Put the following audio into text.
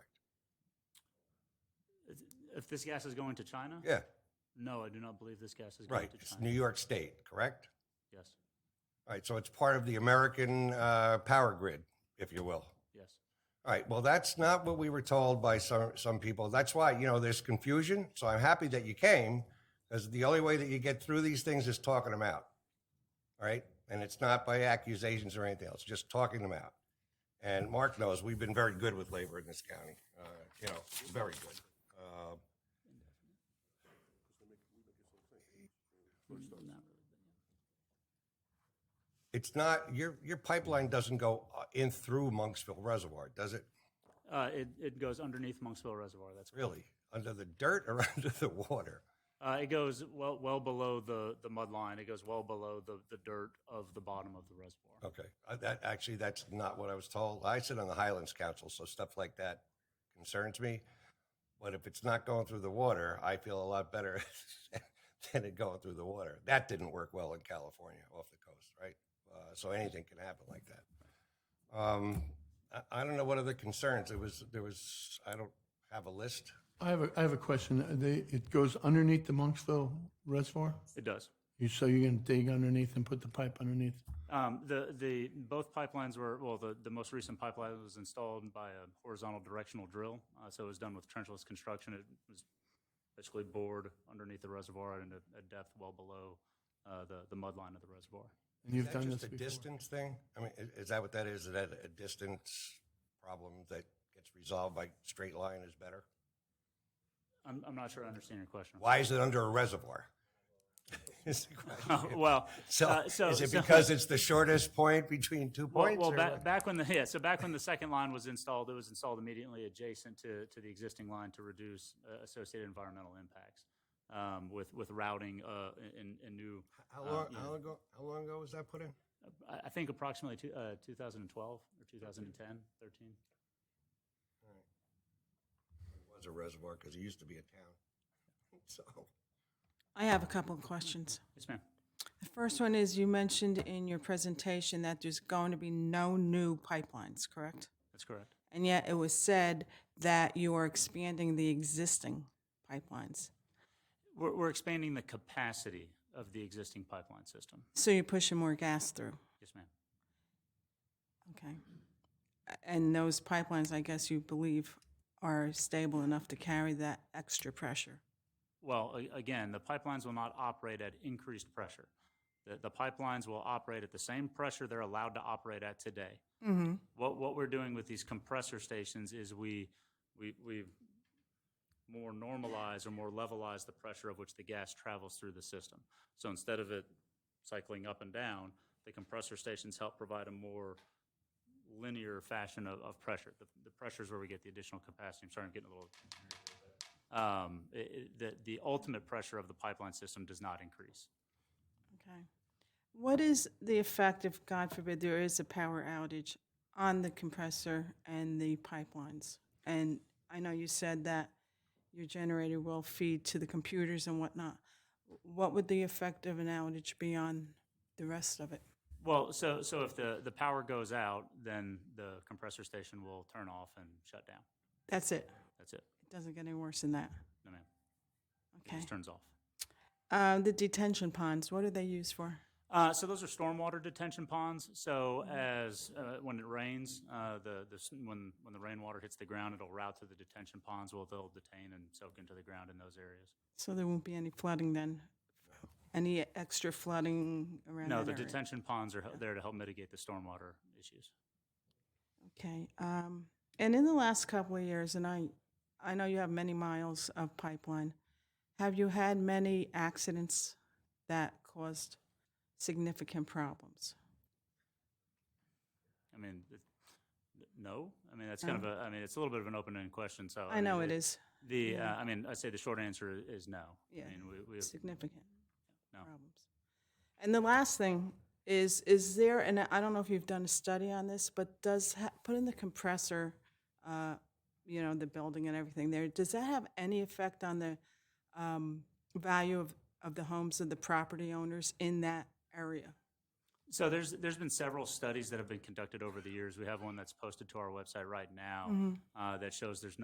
If this gas is going to China? Yeah, No, I do not believe this gas is going right. to It's China. New York State, correct? Yes, All right, so it's part of the American uh, power grid, if you will. yes. All right. Well, that's not what we were told by some some people. That's why you know there's confusion. So I'm happy that you came, because the only way that you get through these things is talking them out. All right, and it's not by accusations or anything else. Just talking them out. And Mark knows we've been very good with labor in this county. Uh, you know, very good. Uh, it's not your your pipeline doesn't go uh, in through Monksville Reservoir, does it? Uh, it, it goes underneath Monksville Reservoir, that's correct. Really, under the dirt or under the water? Uh, it goes well, well below the, the mud line. It goes well below the, the dirt of the bottom of the reservoir. Okay, Uh, that, actually, that's not what I was told. I sit on the Highlands Council, so stuff like that concerns me. But if it's not going through the water, I feel a lot better than it going through the water. That didn't work well in California off the coast, right? Uh, so anything can happen like that. Um, I, I don't know what other concerns. There was, there was, I don't have a list. I have a, I have a question. They, it goes underneath the Monksville Reservoir? It does. You, so you're gonna dig underneath and put the pipe underneath? Um, the, the, both pipelines were, well, the, the most recent pipeline was installed by a horizontal directional drill. Uh, so it was done with trenchless construction. It was basically bored underneath the reservoir at a, a depth well below uh, the, the mud line of the reservoir. And you've Is that done just this a before? distance thing? I mean, i- is that what that is? Is that a distance problem that gets resolved by straight line is better? I'm, I'm not sure I understand your question. Why is it under a reservoir? Is the question. well, So, uh, so is it so- because it's the shortest point between two Well, points? well or ba- what? back when the yeah, so back when the second line was installed, it was installed immediately adjacent to, to the existing line to reduce uh, associated environmental impacts um, with with routing uh, in, in new. how long? how long ago? How long ago was that put in? I I think approximately two, uh, 2012 or 2010, 13. It was a reservoir because it used to be a town. So, I have a couple of questions. Yes, ma'am. The first one is you mentioned in your presentation that there's going to be no new pipelines, correct? That's correct. And yet it was said that you are expanding the existing pipelines. We're, we're expanding the capacity of the existing pipeline system. So you're pushing more gas through, Yes, ma'am. okay? A- And those pipelines, I guess you believe, are stable enough to carry that extra pressure. Well, a- again, the pipelines will not operate at increased pressure. The, the pipelines will operate at the same pressure they're allowed to operate at today. What, what we're doing with these compressor stations is we, we, we more normalize or more levelize the pressure of which the gas travels through the system. So instead of it cycling up and down, the compressor stations help provide a more linear fashion of, of pressure. The, the pressure is where we get the additional capacity. I'm sorry, I'm getting a little um, it- it- the, the ultimate pressure of the pipeline system does not increase. Okay. What is the effect if, God forbid, there is a power outage on the compressor and the pipelines? And I know you said that your generator will feed to the computers and whatnot. What would the effect of an outage be on the rest of it? Well, so, so if the, the power goes out, then the compressor station will turn off and shut down. That's it. That's it. It doesn't get any worse than that. No, ma'am. It Okay. just turns off. Uh, the detention ponds, what are they used for? Uh, so those are stormwater detention ponds. So as uh, when it rains, uh, the, the s- when when the rainwater hits the ground, it'll route to the detention ponds. Well, they'll detain and soak into the ground in those areas. So there won't be any flooding then? Any extra flooding around No, that the area? detention ponds are hel- there to help mitigate the stormwater issues. Okay, um, and in the last couple of years, and I, I know you have many miles of pipeline, have you had many accidents that caused significant problems? I mean, it- no. I mean, that's kind of a. I mean, it's a little bit of an open-ended question. So I know mean, it is The. Uh, I mean, I'd say the short answer i- is no. Yeah. I mean, we, we significant No. problems. And the last thing is, is there, and I don't know if you've done a study on this, but does ha- putting the compressor, uh, you know, the building and everything there, does that have any effect on the um, value of, of the homes of the property owners in that area? So there's there's been several studies that have been conducted over the years. We have one that's posted to our website right now uh, that shows there's no.